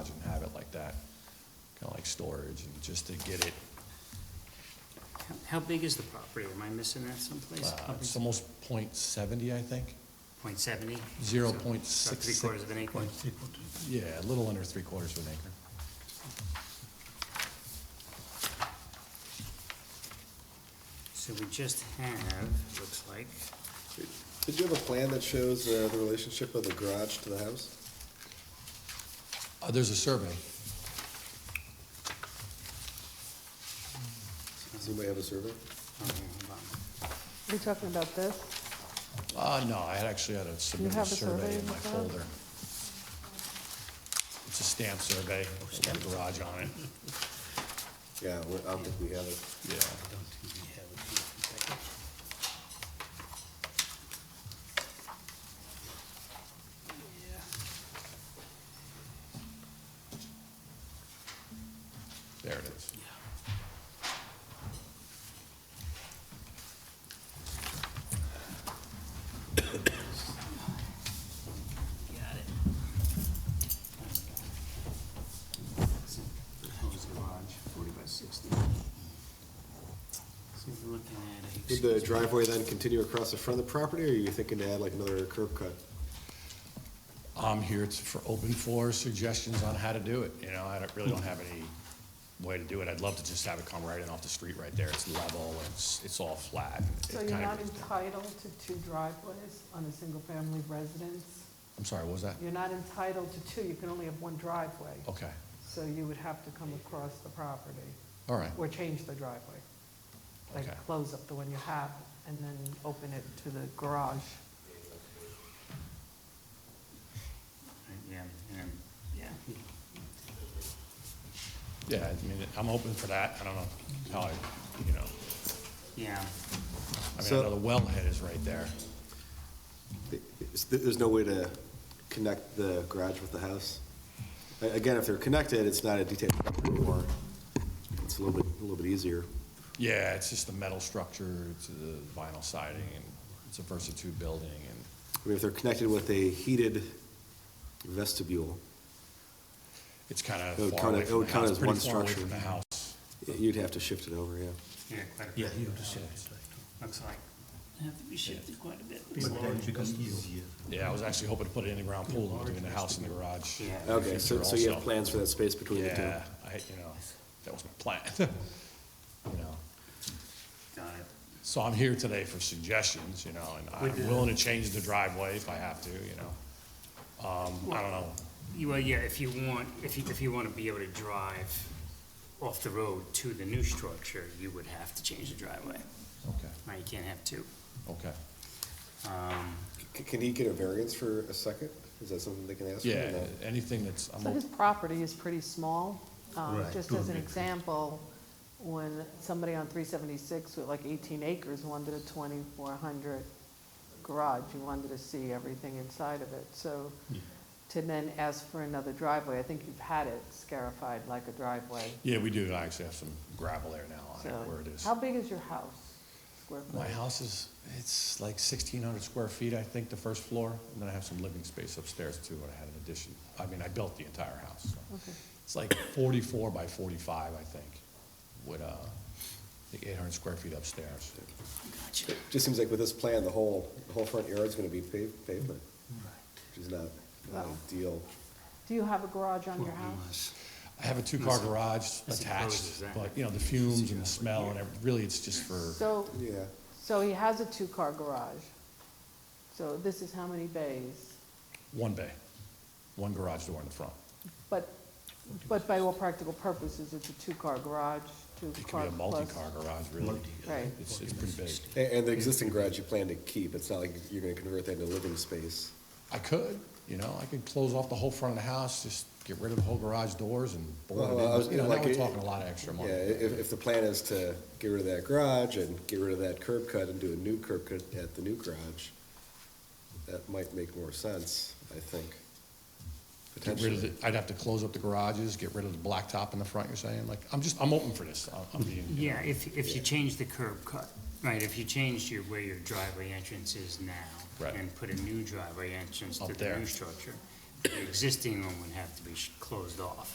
like storage, and just to get it, How- How big is the property? Am I missing that someplace? uh, it's almost point seventy, I think. Point seventy? Zero So- point so six Three six- quarters of an acre. Yeah, a little under three quarters of an acre. So we just have, looks like, Did you have a plan that shows uh, the relationship of the garage to the house? Uh, there's a survey. Does anybody have a survey? oh, hold on. Are you talking about this? Uh, no, I had actually had to submit a have a survey survey in in my the file? folder. It's a stamp survey, with a garage on it, Yeah, we- I don't think we have it. yeah. I don't think we have it here. In fact, There it is. Got it. Proposed garage, forty by sixty. So we're looking at a. Would the driveway then continue across the front of the property, or are you thinking to add like another curb cut? I'm here to- for open floor suggestions on how to do it, you know, I don't- really don't have any way to do it. I'd love to just have it come right in off the street right there, it's level, it's, it's all flat. It So you're kind of- not entitled to two driveways on a single-family residence? I'm sorry, what was that? You're not entitled to two, you can only have one driveway. Okay, So you would have to come across the property all right, or change the driveway. Okay. Like close up the one you have and then open it to the garage. Yeah, and, yeah. yeah, I mean, I'm open for that, I don't know how I, you know, Yeah, I mean, I So- know the wellhead is right there. Is- There's no way to connect the garage with the house? A- Again, if they're connected, it's not a detached property anymore. It's a little bit, a little bit easier. Yeah, it's just the metal structure, it's the vinyl siding, and it's a versatile building, and I mean, if they're connected with a heated vestibule, it's kind of It would far count away it- it from would the count house, as one pretty far away structure. from the house. you'd have to shift it over, yeah. yeah, quite a bit. Yeah, you have to shift it. Looks like. Have to be shifted quite a bit. But then it becomes easier. Yeah, I was actually hoping to put an in-ground pool in between the house and the garage. Yeah. Okay, so, Future so you have also. plans for that space between the two? Yeah, I, you know, that was my plan, you know. Got it. So I'm here today for suggestions, you know, and I'm willing to change the driveway if I have to, you know. Um, I don't know, You- Well, yeah, if you want, if you, if you want to be able to drive off the road to the new structure, you would have to change the driveway. okay, Now, you can't have two. okay. Um, C- Can he get a variance for a second? Is that something they can ask for? or Yeah, not? anything that's, I'm, So his op- property is pretty small. Um, Right. Just as an example, when somebody on 376 with like 18 acres wanted a 2,400 garage, you wanted to see everything inside of it. So to then ask for another driveway, I think you've had it scarified like a driveway. yeah, we do actually have some gravel there now on So it where it is. How big is your house? Square foot? My house is, it's like sixteen hundred square feet, I think, the first floor, and then I have some living space upstairs too, where I had an addition. I mean, I built the entire house, so. Okay. It's like forty-four by forty-five, I think, with, uh, I think eight hundred square feet upstairs. gotcha. Just seems like with this plan, the whole, the whole front yard's gonna be paved, pavement, which is not not Wow. ideal. Do you have a garage on your house? I have a two-car garage as attached, opposed to but, that. you know, the fumes and the smell and everything, really, it's just for, So, Yeah, so he has a two-car garage. So this is how many bays? one bay, one garage door in the front. But, but by all practical purposes, it's a two-car garage, It could be two-car a plus. multi-car garage, really. Right. It's, it's pretty big. A- and the existing garage you plan to keep, it's not like you're gonna convert that into living space. I could, you know, I could close off the whole front of the house, just get rid of the whole garage doors and board Well, I it was- in. You know, now like we're it- talking a lot of extra Yeah, i- money. if, if the plan is to get rid of that garage and get rid of that curb cut and do a new curb cut at the new garage, that might make more sense, I think, Get rid of potentially. the, I'd have to close up the garages, get rid of the blacktop in the front, you're saying? Like, I'm just, I'm open for this. I'm- I'm being, you know, Yeah, if, if you change the curb cut, right, if you change your, where your driveway entrance is now. Right. And put a new driveway entrance to Up the there. new structure, the existing one would have to be sh- closed off.